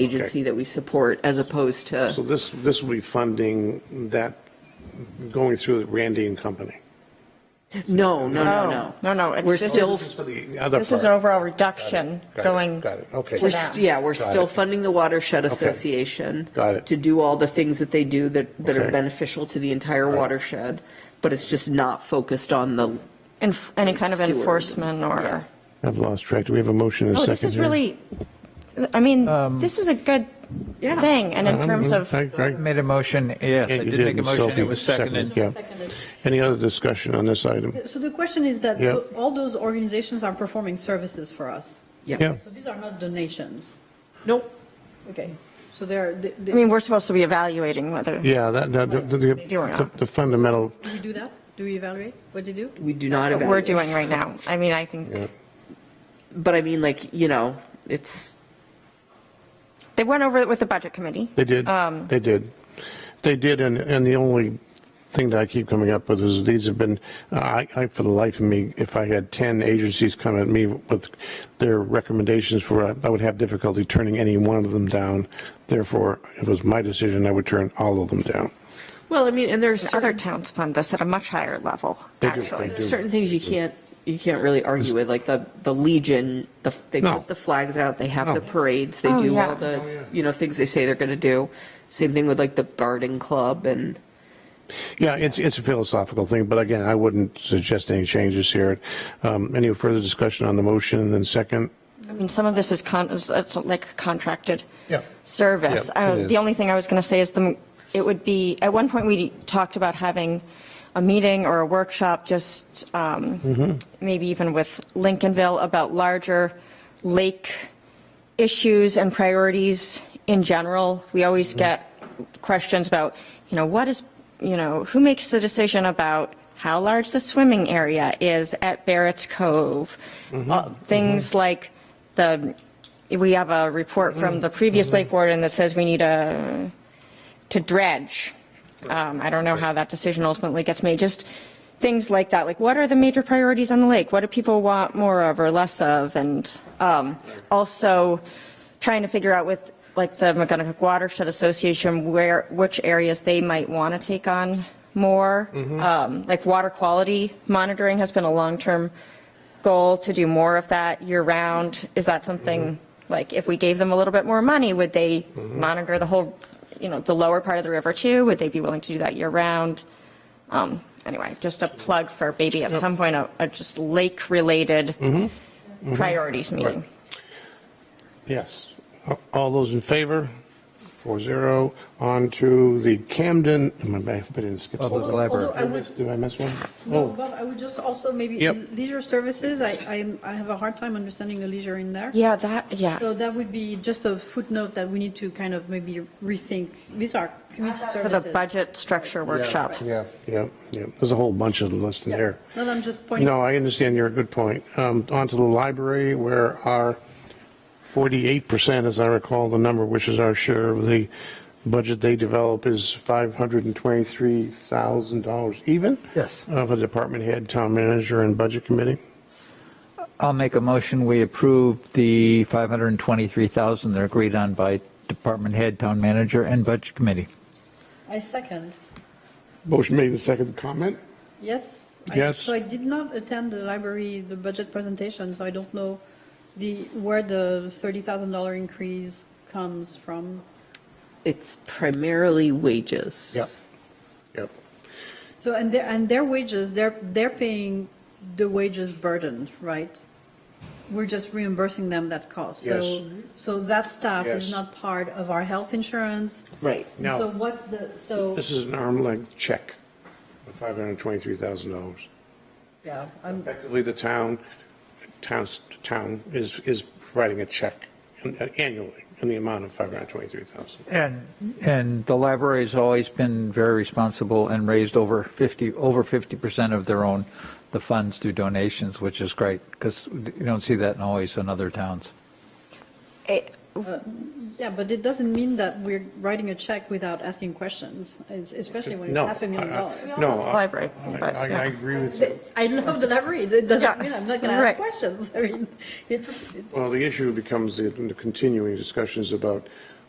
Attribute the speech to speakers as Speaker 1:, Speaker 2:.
Speaker 1: agency that we support as opposed
Speaker 2: So
Speaker 1: to,
Speaker 2: this, this will be funding that, going through Randy and Company.
Speaker 1: no, no, no, no.
Speaker 3: No, no, it's-
Speaker 1: We're
Speaker 3: this
Speaker 1: still,
Speaker 3: is-
Speaker 2: This is for the other
Speaker 3: This is an
Speaker 2: part.
Speaker 3: overall reduction
Speaker 2: Got it,
Speaker 3: going.
Speaker 2: Got it, okay.
Speaker 1: we're,
Speaker 3: to
Speaker 1: st-
Speaker 3: them.
Speaker 1: yeah, we're
Speaker 2: Got
Speaker 1: still
Speaker 2: it.
Speaker 1: funding the Watershed Association.
Speaker 2: Got it.
Speaker 1: To do all the things that they do that, that are
Speaker 2: Okay.
Speaker 1: beneficial to the entire watershed, but it's just not focused on the,
Speaker 3: Enf- Any kind of
Speaker 1: Steward.
Speaker 3: enforcement
Speaker 1: Yeah.
Speaker 3: or,
Speaker 2: I've lost track. Do we have a motion and a
Speaker 3: oh,
Speaker 2: second?
Speaker 3: this is
Speaker 2: here?
Speaker 3: really, I mean, this is a good
Speaker 1: Yeah.
Speaker 3: thing, and in
Speaker 2: Um,
Speaker 3: terms of,
Speaker 2: I- I-
Speaker 4: I Made a motion, yes,
Speaker 2: Yeah,
Speaker 4: I
Speaker 2: you
Speaker 4: did make a
Speaker 2: and
Speaker 4: motion,
Speaker 2: Sophie
Speaker 4: it was seconded.
Speaker 2: Yeah. Any other discussion on this item?
Speaker 5: So the question is that
Speaker 2: Yeah.
Speaker 5: tho- all those organizations are performing services for us.
Speaker 2: Yeah.
Speaker 1: yes.
Speaker 5: So these are not donations.
Speaker 1: Nope.
Speaker 5: Okay. So they're, they-
Speaker 3: I
Speaker 5: they-
Speaker 3: mean, we're supposed to be evaluating whether,
Speaker 2: Yeah, that, that, the- the- the the fundamental,
Speaker 5: do we do that? Do we evaluate what they do?
Speaker 1: We do not
Speaker 3: what we're
Speaker 1: evaluate.
Speaker 3: doing right now. I mean, I think,
Speaker 2: yeah.
Speaker 1: But I mean, like, you know, it's,
Speaker 3: they went over it with the budget committee.
Speaker 2: They did,
Speaker 3: Um,
Speaker 2: they did. They did, and, and the only thing that I keep coming up with is these have been, uh, I, I, for the life of me, if I had 10 agencies come at me with their recommendations for, I would have difficulty turning any one of them down. Therefore, if it was my decision, I would turn all of them down.
Speaker 1: well, I mean, and there's
Speaker 3: And
Speaker 1: certain
Speaker 3: Other towns fund this at a much higher level,
Speaker 2: They do,
Speaker 3: actually.
Speaker 2: they do.
Speaker 1: There's certain things you can't, you can't really argue with, like the, the Legion, the, they
Speaker 2: No.
Speaker 1: put the flags out, they have
Speaker 2: No.
Speaker 1: the parades, they
Speaker 3: Oh,
Speaker 1: do
Speaker 3: yeah.
Speaker 1: all the, you know, things they say they're gonna do. Same thing with like the garden club and,
Speaker 2: Yeah, it's, it's a philosophical thing, but again, I wouldn't suggest any changes here. Um, Any further discussion on the motion and second?
Speaker 3: I mean, some of this is con, is- it's like contracted
Speaker 2: Yeah.
Speaker 3: service.
Speaker 2: Yeah, it
Speaker 3: Uh,
Speaker 2: is.
Speaker 3: The only thing I was going to say is the, it would be, at one point, we talked about having a meeting or a workshop, just
Speaker 2: Mm-hmm.
Speaker 3: um, maybe even with Lincolnville, about larger lake issues and priorities in general. We always
Speaker 2: Mm-hmm.
Speaker 3: get questions about, you know, what is, you know, who makes the decision about how large the swimming area is at Barrett's Cove?
Speaker 2: Mm-hmm.
Speaker 3: Uh, Things like the, we have a report from the previous lake warden that says we need a, to dredge. Um, I don't know how that decision ultimately gets made, just things like that, like what are the major priorities on the lake? What do people want more of or less of? And um, also trying to figure out with, like, the McGonagall Watershed Association, where, which areas they might want to take on more. Um, Like water quality monitoring has been a long-term goal to do more of that year-round? Is that something, like, if we gave them a little bit more money, would they monitor the whole, you know, the lower part of the river too? Would they be willing to do that year-round? Um, Anyway, just a plug for maybe at some point, a, a just lake-related priorities meeting.
Speaker 2: Yes. All those in favor? Four zero. On to the Camden, am I back? I didn't skip.
Speaker 4: Public
Speaker 2: something.
Speaker 4: library.
Speaker 5: Although I
Speaker 2: Did I miss-
Speaker 5: would,
Speaker 2: Did I miss one?
Speaker 5: no,
Speaker 2: Oh,
Speaker 5: Bob, I would just also maybe
Speaker 2: Yep.
Speaker 5: leisure services, I, I'm- I have a hard time understanding the leisure in there.
Speaker 3: Yeah, that, yeah.
Speaker 5: So that would be just a footnote that we need to kind of maybe rethink. These are community
Speaker 3: For
Speaker 5: services.
Speaker 3: the budget structure workshop.
Speaker 2: yeah, yeah. There's a whole bunch of lists in there.
Speaker 5: No, I'm just pointing.
Speaker 2: No, I understand your good point. Um, On to the library where our 48%, as I recall the number, which is our share of the budget they develop is $523,000 even?
Speaker 4: Yes.
Speaker 2: Of a department head, town manager and budget committee?
Speaker 4: I'll make a motion, we approve the 523,000 that are agreed on by department head, town manager, and budget committee.
Speaker 5: I second.
Speaker 2: Motion made and seconded. Comment?
Speaker 5: Yes. I-
Speaker 2: Yes.
Speaker 5: So I did not attend the library, the budget presentation, so I don't know the, where the $30,000 increase comes from.
Speaker 1: it's primarily wages.
Speaker 2: Yep.
Speaker 5: So, and their, and their wages, they're, they're paying the wages burden, right? We're just reimbursing them that cost.
Speaker 2: Yes.
Speaker 5: So, so that staff
Speaker 2: Yes.
Speaker 5: is not part of our health insurance.
Speaker 1: Right.
Speaker 2: No.
Speaker 5: So what's the, so,
Speaker 2: This is an arm length check of $523,000.
Speaker 5: yeah, I'm,
Speaker 2: Effectively, the town, town's, town is, is writing a check uh, annually in the amount of 523,000.
Speaker 4: And, and the library has always been very responsible and raised over 50, over 50% of their own, the funds through donations, which is great, because you don't see that in always in other towns.
Speaker 5: Yeah, but it doesn't mean that we're writing a check without asking questions, es- especially when it's
Speaker 2: No.
Speaker 5: half a million
Speaker 2: I- I-
Speaker 5: dollars.
Speaker 2: No. I-
Speaker 3: Library, but,
Speaker 2: I, I
Speaker 3: yeah.
Speaker 2: agree with you.
Speaker 5: Th- I love the library. It doesn't
Speaker 3: Yeah.
Speaker 5: mean I'm not going to ask
Speaker 3: Right.
Speaker 5: questions. I mean, it's, it's-
Speaker 2: Well, the issue becomes the the continuing discussions about